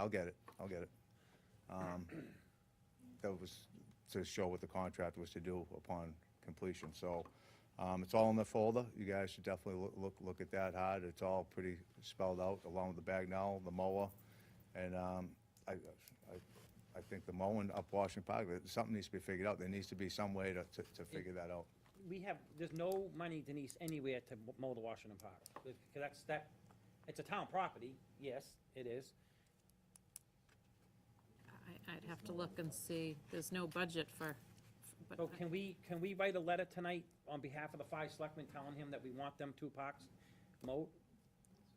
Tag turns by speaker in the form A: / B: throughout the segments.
A: I'll get it, I'll get it. Um, That was to show what the contract was to do upon completion, so, um, it's all in the folder, you guys should definitely loo- look, look at that hard, it's all pretty spelled out, along with the Bagnell, the mower, and, um, I, I, I think the mowing up Washington Park, that- something needs to be figured out, there needs to be some way to, to, to figure that out.
B: We have, there's no money, Denise, anywhere to m- mow the Washington Park. Because that's, that, it's a town property, yes, it is.
C: I, I'd have to look and see, there's no budget for, but
B: So
C: I-
B: Oh, can we, can we write a letter tonight on behalf of the five selectmen telling him that we want them two parks mowed?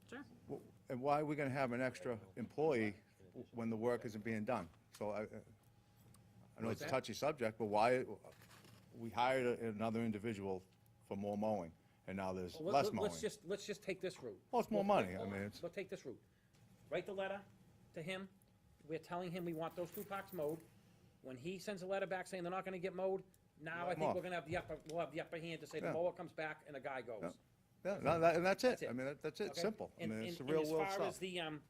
C: sure.
A: Well, And why are we gonna have an extra employee w- when the work isn't being done? So I, I know it's a
B: that?
A: touchy subject, but why, we hired a- another individual for more mowing, and now there's
B: Well, let-
A: less
B: let-
A: mowing.
B: Let's just, let's just take this route.
A: Well, it's more
B: We'll-
A: money, I mean, it's-
B: We'll take this route. Write the letter to him, we're telling him we want those two parks mowed. When he sends a letter back saying they're not gonna get mowed, now I
A: them
B: think
A: off.
B: we're gonna have the upper, we'll have the upper hand to say the
A: Yeah.
B: mower comes back and the guy
A: Yeah.
B: goes.
A: Yeah, no, that- and that's it,
B: it.
A: I mean, that- that's it,
B: Okay?
A: simple, I
B: And-
A: mean,
B: and-
A: it's the
B: and
A: real world
B: As far as
A: stuff.
B: the, um,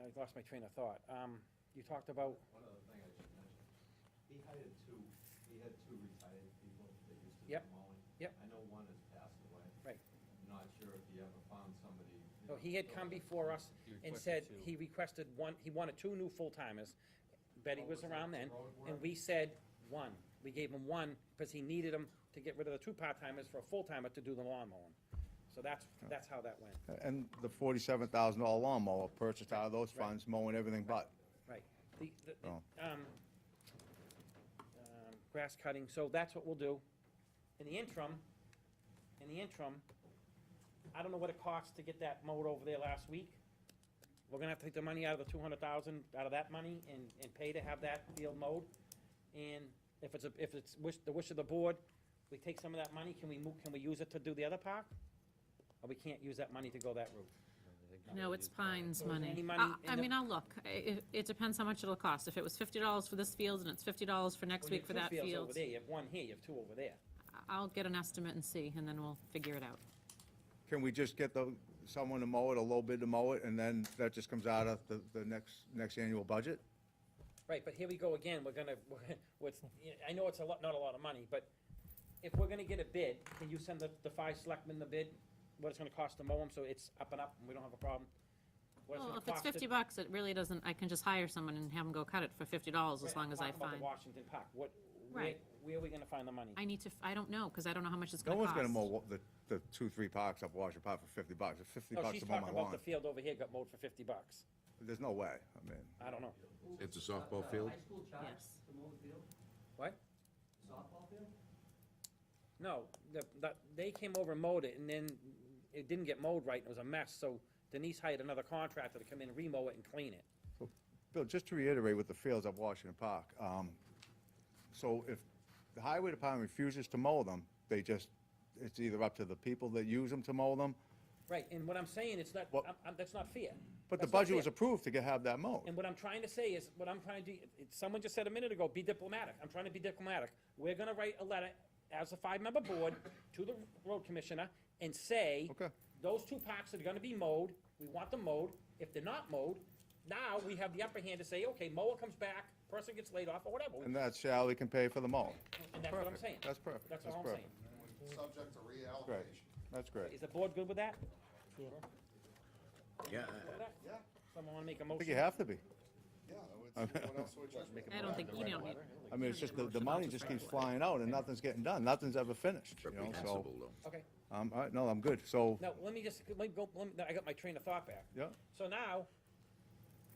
B: I lost my train of thought. Um, you talked about,
D: One other thing I should mention, he hired two, he had two retired people that used to do
B: Yep,
D: mowing.
B: yep.
D: I know one has passed away.
B: Right.
D: Not sure if he ever found somebody. you
B: no,
D: know,
B: oh, he had
D: so-
B: come before us and said he requested one, he wanted two new full-timers. Betty
D: Oh,
B: was
D: was that
B: around
D: the
B: then,
D: road
B: and
D: work?
B: we said one. We gave him one because he needed him to get rid of the two part-timers for a full-timer to do the lawn mowing. So that's, that's how that went,
A: And the forty-seven thousand dollar lawnmower purchased out of those
B: Right.
A: funds, mowing everything but.
B: right. The, the- the,
A: Oh.
B: um, um, grass cutting, so that's what we'll do. In the interim, in the interim, I don't know what it costs to get that mowed over there last week. We're gonna have to take the money out of the two hundred thousand, out of that money, and, and pay to have that field mowed. And if it's, a if it's wish, the wish of the board, we take some of that money, can we move, can we use it to do the other park? Or we can't use that money to go that route?
C: No, it's Pines
B: So is there any
C: money.
B: money
C: I,
B: in
C: I
B: the-
C: mean, I'll look, I- it, it depends how much it'll cost, if it was fifty dollars for this field and it's fifty dollars for next
B: Well, you
C: week for
B: have
C: that
B: two fields over
C: field,
B: there, You have one here, you have two over there.
C: I- I'll get an estimate and see, and then we'll figure it out.
A: Can we just get the, someone to mow it, a low bid to mow it, and then that just comes out of the, the next, next annual budget?
B: Right, but here we go again, we're gonna, we're- what's, I know it's a lot, not a lot of money, but if we're gonna get a bid, can you send the, the five selectmen the bid? What it's gonna cost to mow them, so it's up and up, and we don't have a problem? What
C: Well,
B: gonna
C: if it's
B: cost to-
C: fifty bucks, it really doesn't, I can just hire someone and have them go cut it for fifty dollars as
B: Right, I'm
C: long as I
B: talking about the
C: find.
B: Washington Park, what, where,
C: Right.
B: where are we gonna find the money?
C: I need to, f- I don't know, because I don't know how much it's
A: No
C: gonna
A: one's
C: cost.
A: gonna mow wa- the, the two, three parks up Washington Park for fifty bucks, it's fifty
B: No,
A: bucks
B: Oh, she's
A: to mow my
B: talking about
A: lawn.
B: the field over here got mowed for fifty bucks,
A: There's no way, I mean,
B: I don't know.
E: It's a
D: Uh,
E: softball
D: uh,
E: field?
D: High school charge
C: Yes.
D: to mow the field,
B: What?
D: softball field?
B: No, the, the, they came over and mowed it, and then it didn't get mowed right, and it was a mess, so Denise hired another contractor to come in and remow it and clean it.
A: Bill, just to reiterate with the fields up Washington Park, um, so if the highway department refuses to mow them, they just, it's either up to the people that use them to mow them,
B: Right, and what I'm saying, it's not,
A: Well-
B: I'm, I'm, that's not fair.
A: but the
B: That's not
A: budget was
B: fair.
A: approved to get, have that
B: And
A: mowed.
B: what I'm trying to say is, what I'm trying to do, it- someone just said a minute ago, be diplomatic. I'm trying to be diplomatic. We're gonna write a letter as a five-member board to the road commissioner and say,
A: Okay.
B: those two parks are gonna be mowed, we want them mowed. If they're not mowed, now we have the upper hand to say, okay, mower comes back, person gets laid off or whatever,
A: And that Sally can pay for the mow.
B: and that's what I'm
A: Perfect.
B: saying.
A: That's perfect.
B: That's all I'm
A: perfect.
B: saying.
F: subject to
A: Great,
F: reallocation.
A: that's great.
B: Is the board good with that? Sure.
E: Yeah.
B: With that?
F: Yeah,
B: Someone wanna make a
A: I
B: motion?
A: think you have to be.
F: yeah, it's- what else would you?
C: I don't think, you don't need,
A: I mean, it's just the, the money just keeps flying out and nothing's getting done, nothing's ever finished, you know, so.
E: Reprehensible, though.
B: Okay.
A: Um, all right, no, I'm good, so,
B: Now, let me just, let me go, let me, I got my train of thought back.
A: yeah,
B: So now,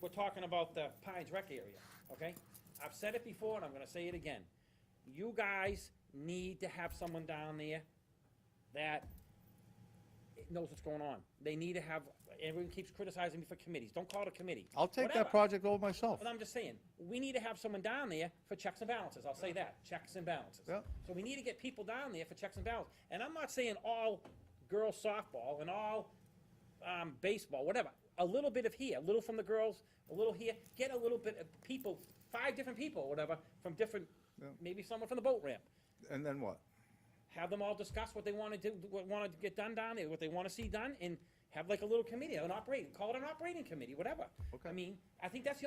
B: we're talking about the Pines Rec area, okay? I've said it before and I'm gonna say it again. You guys need to have someone down there that knows what's going on. They need to have, everyone keeps criticizing me for committees. Don't call it a committee.
A: I'll take
B: Whatever.
A: that project over myself.
B: But I'm just saying, we need to have someone down there for checks and balances, I'll say that, checks and balances.
A: Yeah.
B: So we need to get people down there for checks and balances. And I'm not saying all girls softball and all, um, baseball, whatever. A little bit of here, a little from the girls, a little here, get a little bit of people, five different people, or whatever, from different,
A: Yeah.
B: maybe someone from the boat ramp.
A: And then what?
B: Have them all discuss what they wanna do, what wanna get done down there, what they wanna see done, and Have like a little committee, an operating, call it an operating committee, whatever.
A: Okay.
B: I mean, I think that's the